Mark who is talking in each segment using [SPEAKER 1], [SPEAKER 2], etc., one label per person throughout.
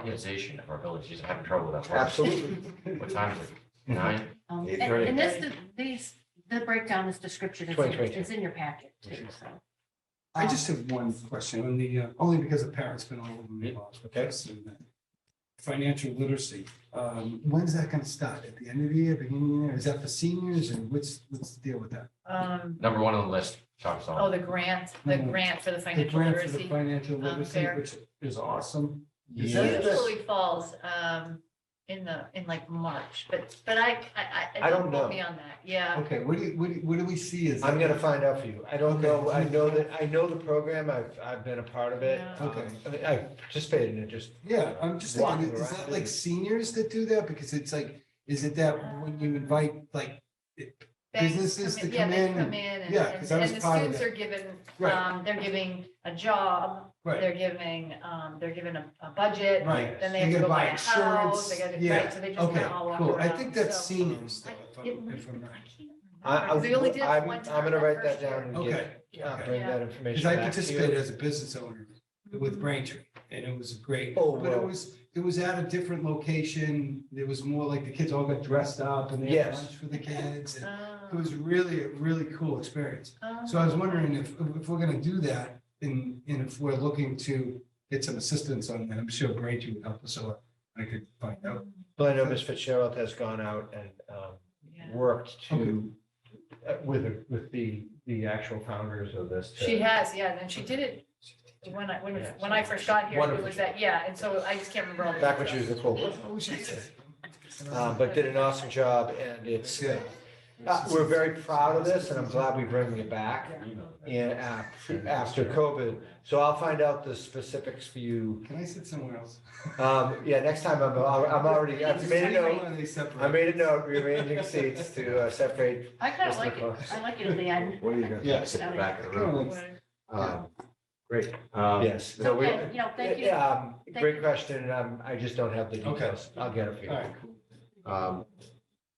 [SPEAKER 1] organization of our village. She's having trouble with that. word.
[SPEAKER 2] Absolutely.
[SPEAKER 1] What time is it? Nine?
[SPEAKER 3] Um,
[SPEAKER 1] Eight
[SPEAKER 3] And
[SPEAKER 1] thirty.
[SPEAKER 3] and this, these, the breakdown, this description is,
[SPEAKER 2] Twenty, twenty,
[SPEAKER 3] is in your packet too, so.
[SPEAKER 4] I
[SPEAKER 2] Um,
[SPEAKER 4] just have one question, on the, uh, only because the parents been all over me about this and that. Financial literacy, um, when's that gonna start? At the end of the year, beginning of the year? Is that for seniors and what's, what's the deal with that?
[SPEAKER 5] Um,
[SPEAKER 1] Number one on the list, Tom Sullivan.
[SPEAKER 5] oh, the grant, the
[SPEAKER 4] Mhm.
[SPEAKER 5] grant for the
[SPEAKER 4] The
[SPEAKER 5] financial
[SPEAKER 4] grant for the
[SPEAKER 5] literacy. um,
[SPEAKER 4] financial literacy,
[SPEAKER 5] fair.
[SPEAKER 4] which is awesome. Is
[SPEAKER 5] So
[SPEAKER 2] Yes.
[SPEAKER 4] that-
[SPEAKER 5] usually falls, um, in the, in like March, but, but I, I, I.
[SPEAKER 2] I don't
[SPEAKER 5] quote
[SPEAKER 2] know.
[SPEAKER 5] Me on that, yeah.
[SPEAKER 4] Okay, what do you, what do, you- what do we see as?
[SPEAKER 2] I'm gonna find out for you. I don't
[SPEAKER 4] Okay.
[SPEAKER 2] know, I know that, I know the program, I've, I've been a part of it.
[SPEAKER 5] Yeah.
[SPEAKER 2] Um,
[SPEAKER 4] Okay.
[SPEAKER 2] I mean, I participated in it, just,
[SPEAKER 4] Yeah, I'm just thinking,
[SPEAKER 2] Walking
[SPEAKER 4] is
[SPEAKER 2] around.
[SPEAKER 4] that like seniors that do that? Because it's like, is it that when you invite, like,
[SPEAKER 5] Banks
[SPEAKER 4] Businesses to
[SPEAKER 5] yeah,
[SPEAKER 4] come
[SPEAKER 5] they
[SPEAKER 4] in
[SPEAKER 5] Come
[SPEAKER 4] and-
[SPEAKER 5] in and,
[SPEAKER 4] yeah, 'cause I
[SPEAKER 5] and
[SPEAKER 4] was
[SPEAKER 5] and the
[SPEAKER 4] part of
[SPEAKER 5] students
[SPEAKER 4] that.
[SPEAKER 5] are given,
[SPEAKER 4] Right.
[SPEAKER 5] um, they're giving a job,
[SPEAKER 4] right,
[SPEAKER 5] they're giving, um, they're given a, a budget.
[SPEAKER 4] right.
[SPEAKER 5] Then they
[SPEAKER 4] you
[SPEAKER 5] have to
[SPEAKER 4] gotta
[SPEAKER 5] go buy a
[SPEAKER 4] insurance.
[SPEAKER 5] house, they gotta,
[SPEAKER 4] Yeah.
[SPEAKER 5] right, so they just
[SPEAKER 4] Okay,
[SPEAKER 5] kinda all walk
[SPEAKER 4] cool. I
[SPEAKER 5] around,
[SPEAKER 4] think that's
[SPEAKER 5] so-
[SPEAKER 4] seniors, though, if
[SPEAKER 5] I-
[SPEAKER 4] I'm-
[SPEAKER 5] it might-
[SPEAKER 4] if I'm right.
[SPEAKER 5] I can't
[SPEAKER 2] I, I,
[SPEAKER 5] remember, 'cause we only did
[SPEAKER 2] would-
[SPEAKER 5] this
[SPEAKER 2] I'm,
[SPEAKER 5] one
[SPEAKER 2] I'm
[SPEAKER 5] time
[SPEAKER 2] gonna
[SPEAKER 5] that
[SPEAKER 2] write
[SPEAKER 5] first
[SPEAKER 2] that down
[SPEAKER 5] year.
[SPEAKER 2] and
[SPEAKER 4] Okay,
[SPEAKER 2] get, uh,
[SPEAKER 4] okay.
[SPEAKER 2] bring that
[SPEAKER 4] Because
[SPEAKER 2] information
[SPEAKER 4] I
[SPEAKER 2] back to
[SPEAKER 4] participated
[SPEAKER 2] you.
[SPEAKER 4] as a business owner with
[SPEAKER 5] Oh.
[SPEAKER 4] Braintree, and it was great.
[SPEAKER 2] Oh,
[SPEAKER 4] But it
[SPEAKER 2] wow.
[SPEAKER 4] was, it was at a different location. It was more like the kids all got dressed up and they had
[SPEAKER 2] Yes.
[SPEAKER 4] lunch for the kids. and It
[SPEAKER 5] Oh,
[SPEAKER 4] was really, a really cool experience.
[SPEAKER 5] oh.
[SPEAKER 4] So I was wondering if, if we're gonna do that and, and if we're looking to get some assistance on that, I'm sure Braintree would help us, so I could find out.
[SPEAKER 2] Well, I know Ms. Fitzgerald has gone out and, um,
[SPEAKER 5] Yeah.
[SPEAKER 2] worked to, uh, with, with the, the actual founders of this. to-
[SPEAKER 5] She has, yeah, and she did it when I, when,
[SPEAKER 2] Yeah,
[SPEAKER 5] when I first got here, it
[SPEAKER 2] Wonderful.
[SPEAKER 5] was that, yeah, and so I just can't remember all the.
[SPEAKER 2] Back when she
[SPEAKER 5] details.
[SPEAKER 2] was the cool,
[SPEAKER 4] Oh, shit.
[SPEAKER 2] uh, but did an awesome job and it's,
[SPEAKER 4] Yeah.
[SPEAKER 2] Uh, We're very proud of this and I'm glad we're bringing it back in, uh, after COVID. So I'll find out the specifics for you.
[SPEAKER 4] Can I sit somewhere else?
[SPEAKER 2] Um, yeah, next time I'm, I'm already, I've made a note. I
[SPEAKER 4] note.
[SPEAKER 2] made a note, rearranging seats to uh, separate.
[SPEAKER 3] I kind of
[SPEAKER 2] Mr.
[SPEAKER 3] like it.
[SPEAKER 2] Fox.
[SPEAKER 3] I like it at the end.
[SPEAKER 6] What are you gonna
[SPEAKER 4] Yeah.
[SPEAKER 6] sit in the back of the room? Um, Great. Um,
[SPEAKER 2] Yes.
[SPEAKER 3] So,
[SPEAKER 2] no, we-
[SPEAKER 3] thank- you know, thank you.
[SPEAKER 2] Yeah, um,
[SPEAKER 3] Thank
[SPEAKER 2] Great
[SPEAKER 3] you.
[SPEAKER 2] question. and, Um, I just don't have the
[SPEAKER 4] Okay.
[SPEAKER 2] details. I'll get it for you.
[SPEAKER 4] All right.
[SPEAKER 6] Um,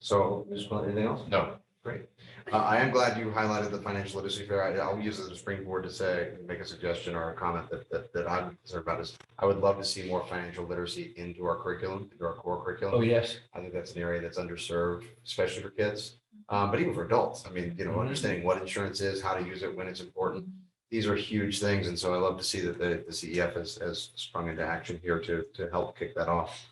[SPEAKER 6] So, Ms. Blunt, anything else?
[SPEAKER 1] No.
[SPEAKER 6] Uh, I am glad you highlighted the financial literacy fair. I- I'll use it as a springboard to say, make a suggestion or a comment that, that, that I'm concerned about is I would love to see more financial literacy into our curriculum, into our core curriculum.
[SPEAKER 2] Oh, yes.
[SPEAKER 6] I think that's an area that's underserved, especially for kids, um, but even for adults. I mean, you know, understanding what insurance is, how to use it, when it's important. These are huge things. And so I love to see that the, the CEF has, has sprung into action here to, to help kick that off.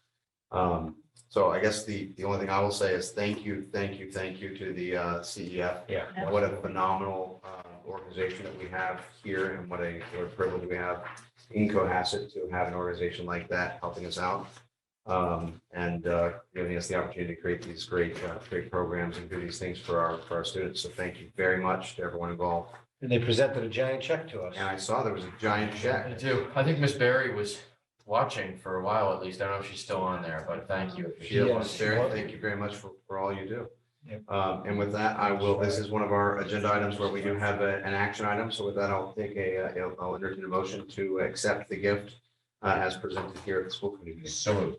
[SPEAKER 6] Um, so I guess the, the only thing I will say is thank you, thank you, thank you to the, uh, CEF.
[SPEAKER 2] Yeah.
[SPEAKER 6] What a phenomenal, uh, organization that we have here and what a, what a privilege we have in Cohasset to have an organization like that helping us out um, and uh, giving us the opportunity to create these great, uh, great programs and do these things for our, for our students. So thank you very much to everyone involved.
[SPEAKER 2] And they presented a giant check to us.
[SPEAKER 6] And I saw there was a giant
[SPEAKER 1] I
[SPEAKER 6] check.
[SPEAKER 1] do. I think Miss Barry was watching for a while at least. I don't know if she's still on there, but thank you. if she
[SPEAKER 6] Sheila
[SPEAKER 1] is.
[SPEAKER 2] Yes.
[SPEAKER 6] Montessori, thank you very much for, for all you do.
[SPEAKER 2] Yep.
[SPEAKER 6] Um, And with that, I will, this is one of our agenda items where we do have a- an action item. So with that, I'll take a, uh, I'll- I'll entertain a motion to accept the gift uh, as presented here at the school committee. meeting.
[SPEAKER 1] So moved.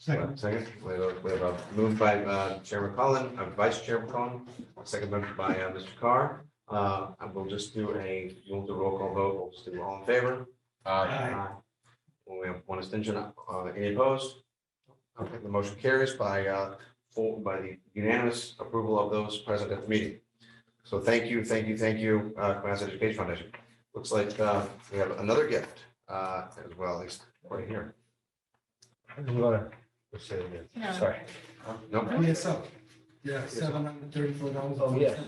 [SPEAKER 4] Second.
[SPEAKER 6] Second, we have, we have a move by uh, Chairman Collin, uh, Vice Chairman Collin, second by uh, Mr. Carr. Uh, I will just do a, we'll do a roll call vote, we'll just do all in favor.
[SPEAKER 1] Uh,
[SPEAKER 4] Aye.
[SPEAKER 6] We have one abstention, uh, any opposed? Okay, the motion carries by, uh, full, by the unanimous approval of those present at the meeting. So thank you, thank you, thank you, uh, Cohasset Education Foundation. Looks like, uh, we have another gift, uh, as well, at least right here.
[SPEAKER 2] You wanna-
[SPEAKER 6] Let's say it again.
[SPEAKER 3] No.
[SPEAKER 2] Sorry.
[SPEAKER 6] Nope.
[SPEAKER 4] PSO. Yeah, seven hundred thirty-four dollars.
[SPEAKER 2] Oh, yes.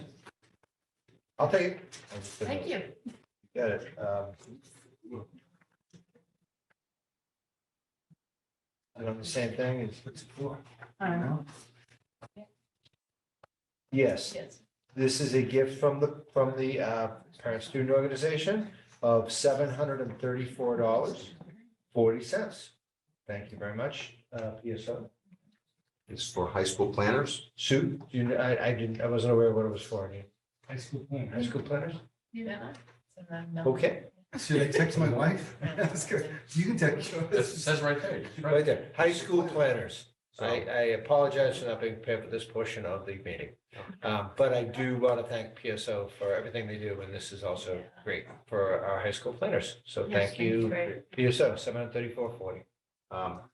[SPEAKER 6] I'll take it.
[SPEAKER 3] Thank you.
[SPEAKER 2] Got it. Um, I don't, the same thing as,
[SPEAKER 4] What's it for?
[SPEAKER 3] Um,
[SPEAKER 2] yes.
[SPEAKER 5] Yes.
[SPEAKER 2] This is a gift from the, from the uh, parent student organization of seven hundred and thirty-four dollars, forty cents. Thank you very much, uh, PSO.
[SPEAKER 6] It's for high school planners.
[SPEAKER 2] Sue, do you, I, I didn't, I wasn't aware what it was for, Any
[SPEAKER 4] High school plan.
[SPEAKER 2] high school planners?
[SPEAKER 5] Yeah. So then, um, no.
[SPEAKER 2] Okay,
[SPEAKER 4] Should I text my wife? That's good. You can text. her.
[SPEAKER 1] It says right there.
[SPEAKER 2] right there, high school planners.
[SPEAKER 6] So
[SPEAKER 2] I, I apologize for not being prepared for this portion of the meeting. Um, But I do want to thank PSO for everything they do, and this is also great for our high school planners. So
[SPEAKER 3] Yes,
[SPEAKER 2] thank you,
[SPEAKER 3] Great.
[SPEAKER 2] PSO, seven hundred thirty-four forty.
[SPEAKER 6] Um,